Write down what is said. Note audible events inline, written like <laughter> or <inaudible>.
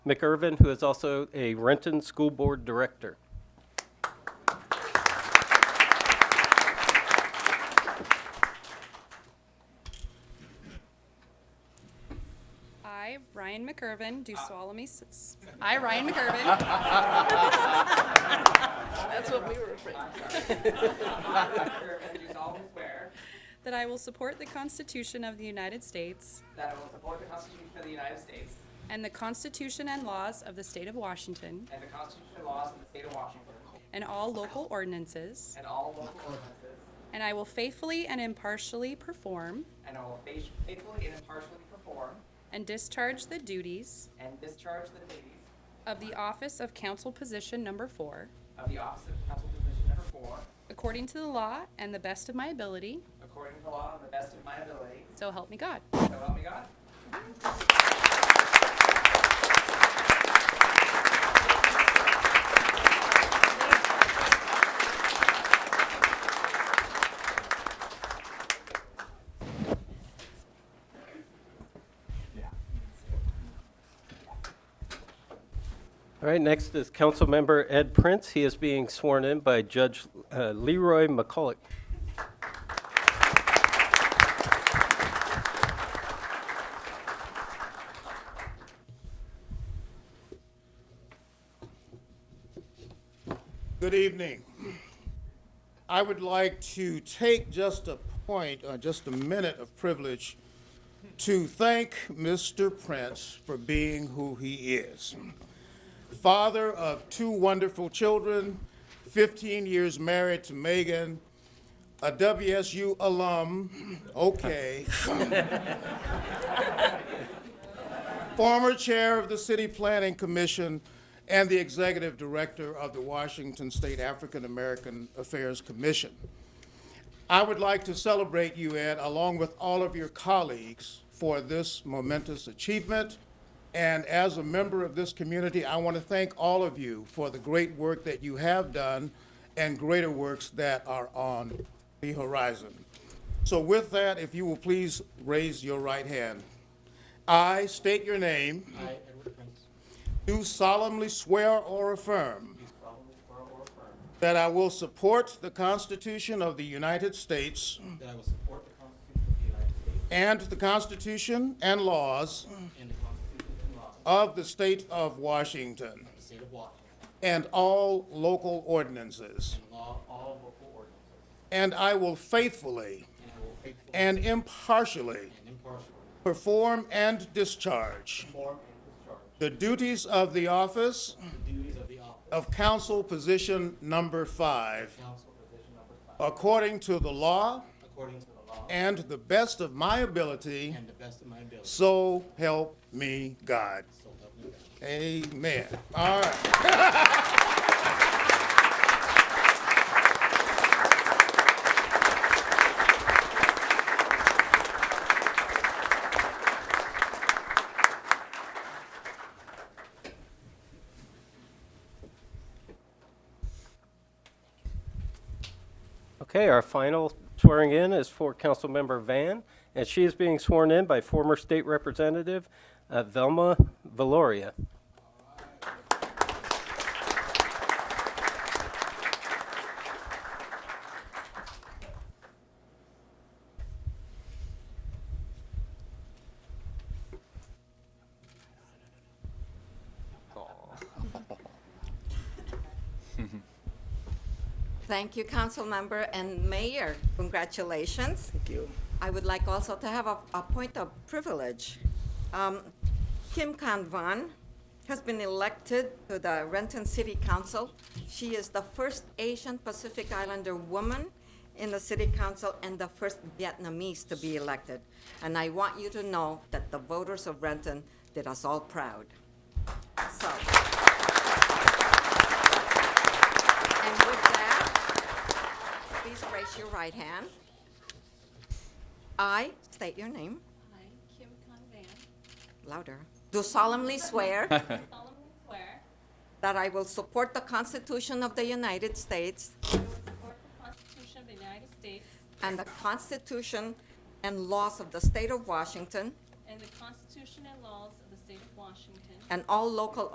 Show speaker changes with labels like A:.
A: McIrvin, who is also a Renton School Board Director.
B: I, Ryan McIrvin, do solemnly s- I, Ryan McIrvin,
A: <laughs>
C: That's what we were afraid.
D: And do solemnly swear
B: that I will support the Constitution of the United States
D: that I will support the Constitution of the United States
B: and the Constitution and laws of the State of Washington
D: and the Constitution and laws of the state of Washington
B: and all local ordinances,
D: and all local ordinances,
B: and I will faithfully and impartially perform
D: and I will faith- faithfully and impartially perform
B: and discharge the duties
D: and discharge the duties
B: of the office of council position number four
D: of the office of council position number four
B: according to the law and the best of my ability,
D: according to law and the best of my ability.
B: so help me God.
D: So help me God.
A: All right, next is Councilmember Ed Prince. He is being sworn in by Judge uh, Leroy McCulloch.
E: Good evening. I would like to take just a point, uh, just a minute of privilege to thank Mr. Prince for being who he is. Father of two wonderful children, 15 years married to Megan, a WSU alum, okay. former chair of the City Planning Commission and the executive director of the Washington State African American Affairs Commission. I would like to celebrate you, Ed, along with all of your colleagues, for this momentous achievement. And as a member of this community, I want to thank all of you for the great work that you have done and greater works that are on the horizon. So with that, if you will please raise your right hand. I state your name. I, Edward Prince. Do solemnly swear or affirm. That I will support the Constitution of the United States
F: That I will support the Constitution of the United States
E: and the Constitution and laws
F: and the Constitution and laws of
E: of the State of Washington
F: the State of Washington,
E: and all local ordinances.
F: and law all local ordinances,
E: And I will faithfully
F: and I will faithfully
E: and impartially
F: and impartially
E: perform and discharge
F: perform and discharge
E: the duties of the office
F: the duties of the office
E: of Council Position Number Five
F: of council position number five
E: according to the law
F: according to the law
E: and the best of my ability.
F: and the best of my ability,
E: So help me God.
F: so help me God.
E: Amen. All right.
A: Okay, our final swearing in is for Councilmember Van, and she is being sworn in by former State Representative uh, Velma Valoria.
C: Thank you, council member and mayor. Congratulations. Thank you. I would like also to have a, a point of privilege. Um, Kim Kanvan has been elected to the Renton City Council. She is the first Asian Pacific Islander woman in the city council and the first Vietnamese to be elected. And I want you to know that the voters of Renton did us all proud. So. And with that, please raise your right hand. I state your name
G: I, Kim Convan,
C: louder. Do solemnly swear
G: solemnly swear
C: that I will support the Constitution of the United States
G: I will support the Constitution of the United States
C: and the Constitution and laws of the State of Washington
G: and the Constitution and laws of the state of Washington
C: and all local